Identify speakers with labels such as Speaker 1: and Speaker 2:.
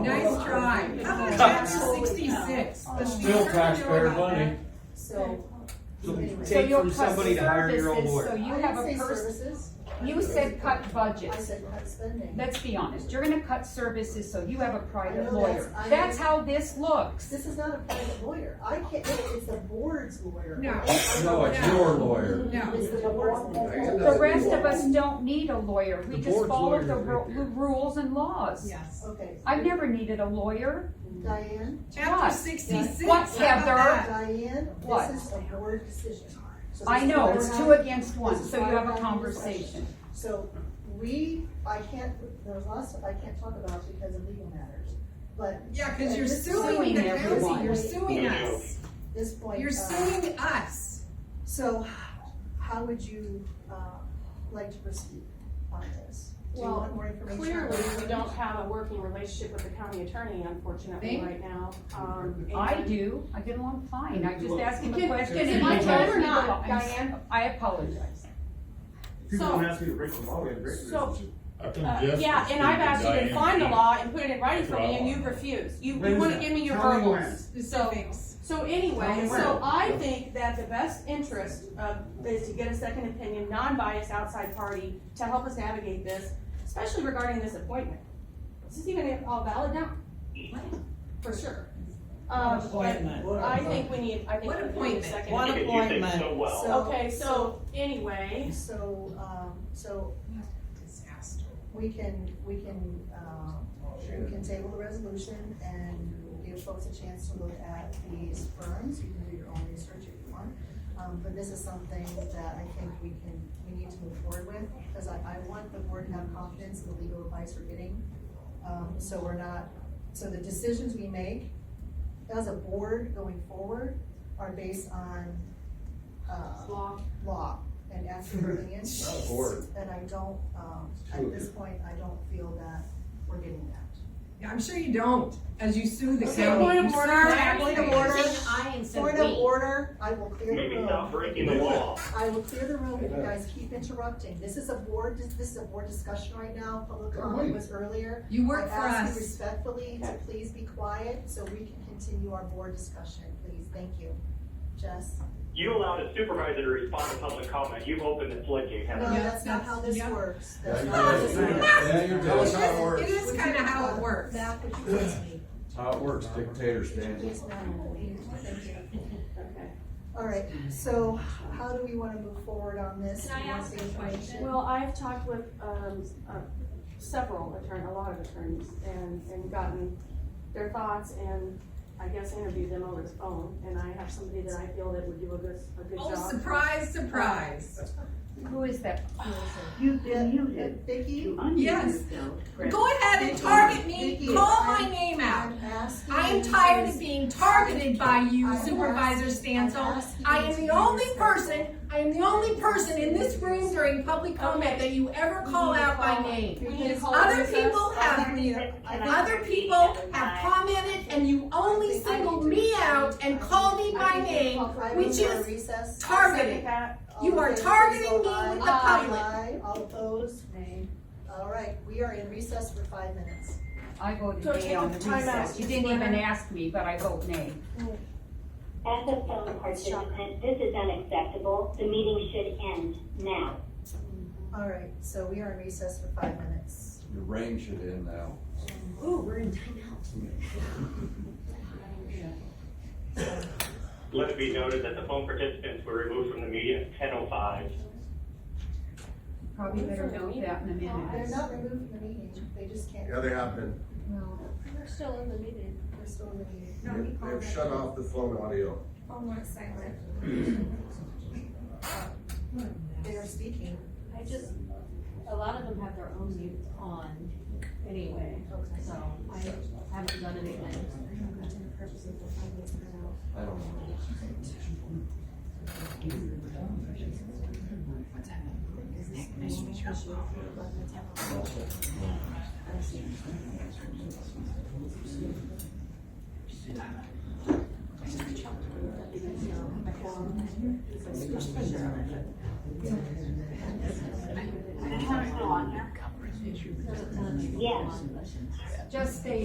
Speaker 1: Nice try. How about chapter sixty-six? The
Speaker 2: Still
Speaker 1: Schneezer-
Speaker 2: taxpayer money.
Speaker 3: So.
Speaker 4: So you
Speaker 5: So
Speaker 4: take
Speaker 5: your
Speaker 4: from somebody to hire your own
Speaker 5: services, So
Speaker 4: lawyer.
Speaker 5: you
Speaker 3: I
Speaker 5: have a
Speaker 3: didn't say
Speaker 5: person,
Speaker 3: services.
Speaker 5: you said cut
Speaker 3: I
Speaker 5: budgets.
Speaker 3: said cut spending.
Speaker 5: Let's be honest, you're gonna cut services, so you have a private
Speaker 3: I know that's-
Speaker 5: lawyer.
Speaker 3: I know.
Speaker 5: That's how this looks.
Speaker 3: This is not a private lawyer. I can't, it's the board's lawyer.
Speaker 1: No.
Speaker 3: I-
Speaker 2: No, it's your lawyer.
Speaker 1: No.
Speaker 3: It's the board's lawyer.
Speaker 5: The rest of us don't need a lawyer, we
Speaker 4: The
Speaker 5: just
Speaker 4: board's
Speaker 5: follow
Speaker 4: lawyers
Speaker 5: the
Speaker 4: right
Speaker 5: ru-
Speaker 4: there.
Speaker 5: rules and laws.
Speaker 1: Yes.
Speaker 3: Okay.
Speaker 5: I've never needed a lawyer.
Speaker 3: Diane,
Speaker 1: Chapter
Speaker 5: What?
Speaker 1: sixty-six.
Speaker 5: What,
Speaker 1: How about
Speaker 5: Heather?
Speaker 1: that?
Speaker 3: Diane,
Speaker 5: What?
Speaker 3: this is a board decision. So
Speaker 5: I
Speaker 3: this is
Speaker 5: know,
Speaker 3: why
Speaker 5: it's
Speaker 3: we're
Speaker 5: two
Speaker 3: not-
Speaker 5: against one,
Speaker 3: this is
Speaker 5: so you
Speaker 3: why
Speaker 5: have
Speaker 3: we're
Speaker 5: a
Speaker 3: not in discussion.
Speaker 5: conversation.
Speaker 3: So we, I can't, there's lots I can't talk about because of legal matters, but
Speaker 1: Yeah, cause you're
Speaker 3: This is
Speaker 1: suing
Speaker 5: suing
Speaker 1: the county,
Speaker 5: everyone.
Speaker 1: you're suing us,
Speaker 3: this point.
Speaker 1: you're
Speaker 3: uh,
Speaker 1: suing us.
Speaker 3: So how would you, uh, like to proceed on this? Do you
Speaker 6: Well,
Speaker 3: want more information?
Speaker 6: Clearly, we don't have a working relationship with the county attorney unfortunately
Speaker 1: Thank-
Speaker 6: right now. Um,
Speaker 5: I
Speaker 6: and-
Speaker 5: do, I get along fine, I just ask him a
Speaker 6: Can-
Speaker 5: question.
Speaker 6: is
Speaker 4: it my
Speaker 5: and he
Speaker 4: turn or
Speaker 5: tells me
Speaker 6: not,
Speaker 5: the law. I'm s-
Speaker 6: Diane?
Speaker 5: I apologize.
Speaker 7: People
Speaker 6: So-
Speaker 7: don't ask me to break the law, we have great
Speaker 6: So-
Speaker 7: relationship.
Speaker 2: I think
Speaker 6: Uh,
Speaker 2: Jeff
Speaker 6: Yeah,
Speaker 2: was
Speaker 6: and I've asked you to
Speaker 2: speaking
Speaker 6: find the
Speaker 2: Diane.
Speaker 6: law and put it in writing for me, and
Speaker 2: Right.
Speaker 6: you've refused. You,
Speaker 7: When's
Speaker 6: you wanna
Speaker 7: that?
Speaker 6: give me your
Speaker 7: Tell me
Speaker 6: verbals. So,
Speaker 1: Specifics.
Speaker 6: so
Speaker 7: Tell
Speaker 6: anyway,
Speaker 7: me
Speaker 6: so
Speaker 7: when.
Speaker 6: I think that the best interest of, is to get a second opinion, non-biased outside party to help us navigate this, especially regarding this appointment. Is this even all valid now? For sure. Um,
Speaker 8: Appointment.
Speaker 6: but I think we need, I think
Speaker 1: What
Speaker 6: we need a
Speaker 1: appointment?
Speaker 6: second-
Speaker 8: One appointment.
Speaker 3: So-
Speaker 6: Okay, so anyway,
Speaker 3: So, um, so
Speaker 1: Disaster.
Speaker 3: we can, we can, uh, we can table the resolution and give folks a chance to look at these firms. You can do your own research if you want. Um, but this is something that I think we can, we need to move forward with, because I, I want the board to have confidence in the legal advice we're getting. Um, so we're not, so the decisions we make as a board going forward are based on, uh,
Speaker 6: law,
Speaker 3: law and asking opinions.
Speaker 2: Not bored.
Speaker 3: And I don't, um, at this point, I don't feel that we're getting that.
Speaker 1: Yeah, I'm sure you don't, as you sue the
Speaker 6: Okay,
Speaker 1: county. Oh,
Speaker 6: point of
Speaker 1: You
Speaker 6: order,
Speaker 1: serve
Speaker 6: Mayor,
Speaker 3: point of
Speaker 1: everything.
Speaker 3: order.
Speaker 9: I instead
Speaker 3: Point
Speaker 9: of
Speaker 3: of
Speaker 9: we.
Speaker 3: order, I will clear the
Speaker 10: Maybe not
Speaker 3: room.
Speaker 10: breaking the law.
Speaker 3: I will clear the room if you guys keep interrupting. This is a board, this this is a board discussion right now. Public comment was earlier.
Speaker 1: You work
Speaker 3: I
Speaker 1: for
Speaker 3: ask you
Speaker 1: us.
Speaker 3: respectfully to please be quiet so we can continue our board discussion, please. Thank you. Jess?
Speaker 10: You allowed a supervisor to respond to public comment, you've opened the floodgate,
Speaker 3: No,
Speaker 10: haven't you?
Speaker 1: Yeah,
Speaker 3: that's not how this
Speaker 1: that's- yeah.
Speaker 3: works.
Speaker 2: Yeah,
Speaker 3: That's
Speaker 2: you
Speaker 3: not how
Speaker 2: did.
Speaker 3: this works.
Speaker 2: Yeah, you
Speaker 4: That was
Speaker 2: did.
Speaker 4: how it works.
Speaker 1: It is kind of how it works.
Speaker 3: Back what you asked me.
Speaker 2: How it works, dictator stands.
Speaker 3: Please, no, thank you.
Speaker 6: okay.
Speaker 3: All right, so how do we wanna move forward on this?
Speaker 9: Can I
Speaker 3: Do you want
Speaker 9: ask
Speaker 3: the
Speaker 9: a
Speaker 3: information?
Speaker 9: question?
Speaker 6: Well, I've talked with, um, uh, several attorney, a lot of attorneys and, and gotten their thoughts and I guess interviewed them over the phone. And I have somebody that I feel that would do a good, a good
Speaker 1: Oh,
Speaker 6: job.
Speaker 1: surprise, surprise.
Speaker 5: Who is that?
Speaker 8: You did, you
Speaker 3: Yeah, uh, Vicky,
Speaker 1: Yes. Go ahead and target me,
Speaker 3: Vicky,
Speaker 1: call
Speaker 3: I'm-
Speaker 1: my name out.
Speaker 3: I'm asking.
Speaker 1: I'm
Speaker 3: you
Speaker 1: tired
Speaker 3: to-
Speaker 1: of being targeted by you, Supervisor Stansel. I am the only person, I am the only person in this room during public comment that you ever call out by name.
Speaker 6: We need to call
Speaker 1: Other
Speaker 6: recess.
Speaker 1: people
Speaker 3: I think
Speaker 1: have,
Speaker 3: we need a- I think-
Speaker 1: other people have commented and you only singled me out and called me
Speaker 3: I
Speaker 1: by
Speaker 3: think we
Speaker 1: name,
Speaker 3: call five
Speaker 1: which
Speaker 3: minutes
Speaker 1: is
Speaker 3: recess.
Speaker 1: targeting.
Speaker 6: That-
Speaker 3: All
Speaker 1: You
Speaker 3: in
Speaker 1: are
Speaker 3: favor, please
Speaker 1: targeting
Speaker 3: vote
Speaker 1: me
Speaker 3: aye.
Speaker 1: with the
Speaker 3: Aye,
Speaker 1: public.
Speaker 3: aye. all opposed? Nay. All right, we are in recess for five minutes.
Speaker 5: I voted
Speaker 6: So take
Speaker 5: nay on
Speaker 6: a
Speaker 5: the
Speaker 6: timeout,
Speaker 5: recess, you didn't
Speaker 6: Ms.
Speaker 5: even
Speaker 6: Leonard.
Speaker 5: ask me, but I vote nay.
Speaker 11: As a phone participant, this is unacceptable. The meeting should end now.
Speaker 3: All right, so we are in recess for five minutes.
Speaker 2: Your reign should end now.
Speaker 11: Ooh, we're in timeout.
Speaker 10: Let it be noted that the phone participants were removed from the meeting at ten oh five.
Speaker 5: Probably better note that in a
Speaker 3: They're
Speaker 5: minute.
Speaker 3: not removed from the meeting, they just can't.
Speaker 12: Yeah, they have been.
Speaker 5: Well,
Speaker 3: They're still in the meeting. They're still in the meeting.
Speaker 12: They've shut off the phone audio.
Speaker 3: They are speaking.
Speaker 9: I just, a lot of them have their own mutes on anyway, so I haven't done anything.
Speaker 2: I don't know.
Speaker 11: Yes.
Speaker 5: just stay